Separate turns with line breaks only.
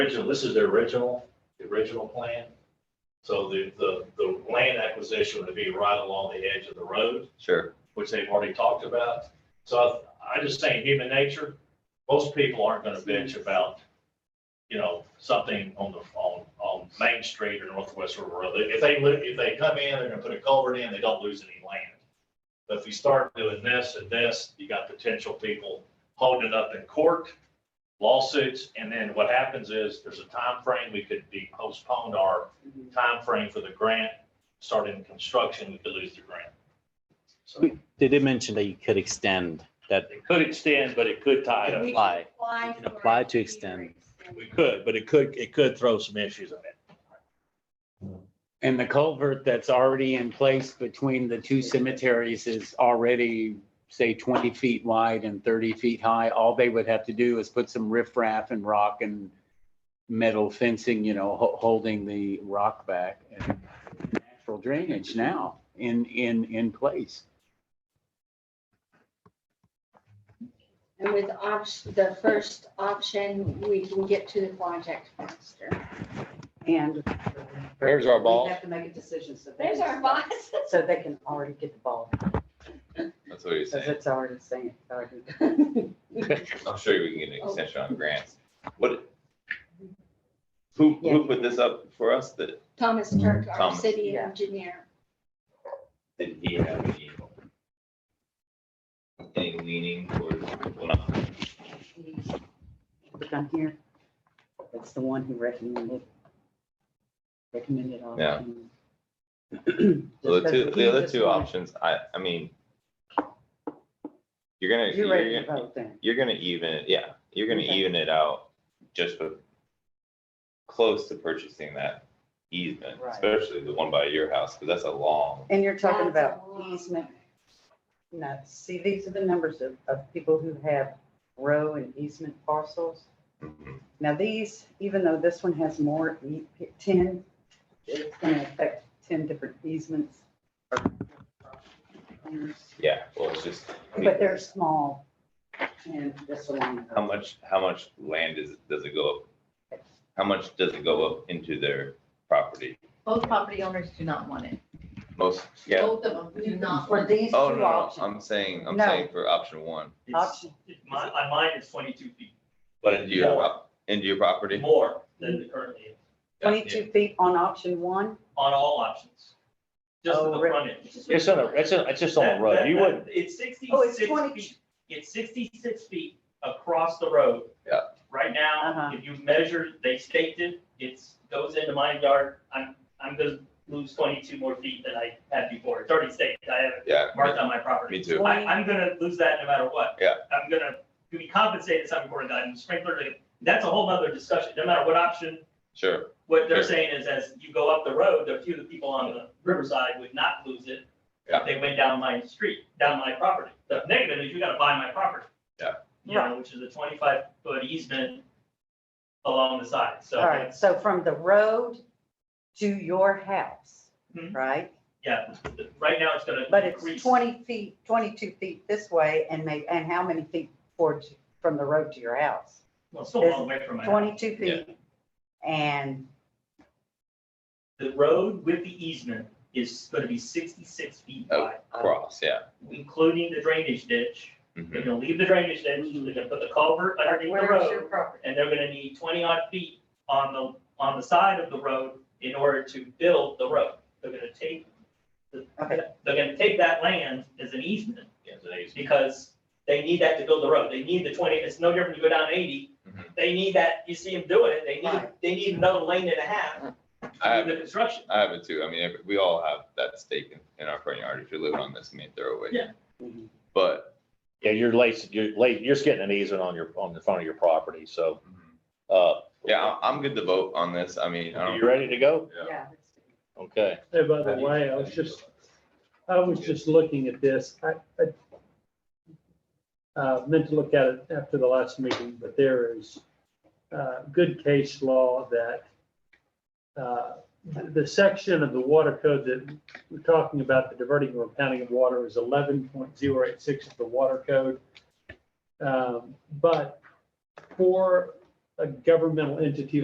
original, this is the original, the original plan. So the, the, the land acquisition would be right along the edge of the road,
Sure.
which they've already talked about. So I I just think human nature, most people aren't gonna bitch about, you know, something on the, on, on Main Street or Northwest River Road. If they, li- if they come in, they're gonna put a culvert in, they don't lose any land. But if you start doing this and this, you got potential people holding it up in court, lawsuits, and then what happens is, there's a time frame we could be postponed our time frame for the grant, starting construction, we could lose the grant. So
They did mention that you could extend that,
it could extend, but it could tie
We
up.
can
Apply.
Apply.
You can
for
apply
it
to
be
extend.
extended.
We could, but it could, it could throw some issues in it.
And the culvert that's already in place between the two cemeteries is already, say, 20 feet wide and 30 feet high. All they would have to do is put some riprap and rock and metal fencing, you know, ho- holding the rock back. and Natural drainage now in, in, in place.
And with option, the first option, we can get to the project faster.
And
There's our
we
ball.
have to make a decision so. they
There's
can
our
start-
boss.
So they can already get the ball,
That's what he's
because
saying.
it's already saying. already.
I'm sure we can get an extension on grants. What? Who, who put this up for us that,
Thomas Turk, our
Thomas.
city
Yeah.
engineer.
did he have any? Any leaning towards, well, not,
Look on here. It's the one who recommended. Recommended all.
Yeah.
Just
the two,
because we
the other
just
two
want-
options, I, I mean. You're gonna,
You're ready
you're
to
gonna,
vote then.
you're gonna even, it- yeah, you're gonna
Okay.
even it out just with. Close to purchasing that easement,
Right.
especially the one by your house, because that's a long,
And you're talking
That's
about
a lot.
easement. No, see, these are the numbers of, of people who have row and easement parcels.
Mhm.
Now these, even though this one has more, e- ten, it's gonna affect ten different easements.
yeah, well, it's just.
But they're small and this one.
How much, how much land is, does it go up? How much does it go up into their property?
Both property owners do not want it.
Most, yeah,
Both of them do not
For
want it.
these two
oh, no, no,
options.
I'm saying, I'm
No.
saying for option one,
It's,
Option.
it- my, my mine is twenty-two feet
but into your, prop- into your property?
more than the currently, is
Twenty-two feet on option one,
on all options. Just to
Oh,
the
really?
front end.
It's on a, it's a, it's just on a road.
That-
You
that-
wouldn't,
It's
Oh, it's
sixty-six
20.
feet, it's sixty-six feet across the road.
Yeah.
Right
Uh-huh.
now, if you measure, they staked it, it's, goes into my yard, I'm, I'm gonna lose twenty-two more feet than I had before, it's already staked, I have it
Yeah,
marked on my property.
me too.
I, I'm gonna lose that no matter what.
Yeah.
I'm gonna be compensated some for that, and sprinkler, that's a whole nother discussion, no matter what option,
Sure,
what they're
Sure.
saying is as you go up the road, the few of the people on the riverside would not lose it.
Yeah.
If they went down my street, down my property, the negative is you gotta buy my property.
Yeah.
You know, which is a twenty-five foot easement along the side, so.
all right, so from the road to your house,
Mhm.
right?
Yeah, right now it's gonna.
But it's
increase.
twenty feet, twenty-two feet this way and may, and how many feet towards, from the road to your house?
Well, it's still a long way from my house.
Twenty-two feet. And
The road with the easement is gonna be sixty-six feet
Oh.
wide,
cross, yeah.
including the drainage ditch. They're
Mhm.
gonna leave the drainage ditch, they're gonna put the culvert underneath the
where's
road.
your property?
and they're gonna need twenty odd feet on the, on the side of the road in order to build the road. They're gonna take, the-
Okay.
they're gonna take that land as an easement,
yeah, today's-
because they need that to build the road, they need the twenty, it's no different you go down eighty.
Mhm.
They need that, you see them doing it, they need,
Right.
they need another lane and a half
I
to
have,
do the construction.
I have it too. I mean, every- we all have that stake in, in our front yard if you're living on this main thoroughway.
Yeah.
But,
yeah, you're late, you're late, you're just getting an easement on your, on the front of your property, so,
mhm.
uh.
yeah, I'm- I'm good to vote on this. I mean, I
You
don't.
ready to go?
yeah.
Yeah.
Okay.
Hey, by the way, I was just, I was just looking at this, I, I uh, meant to look at it after the last meeting, but there is, uh, good case law that, uh, the section of the water code that we're talking about, the diverting or pounding of water is eleven point zero eight six of the water code. Um, but for a governmental entity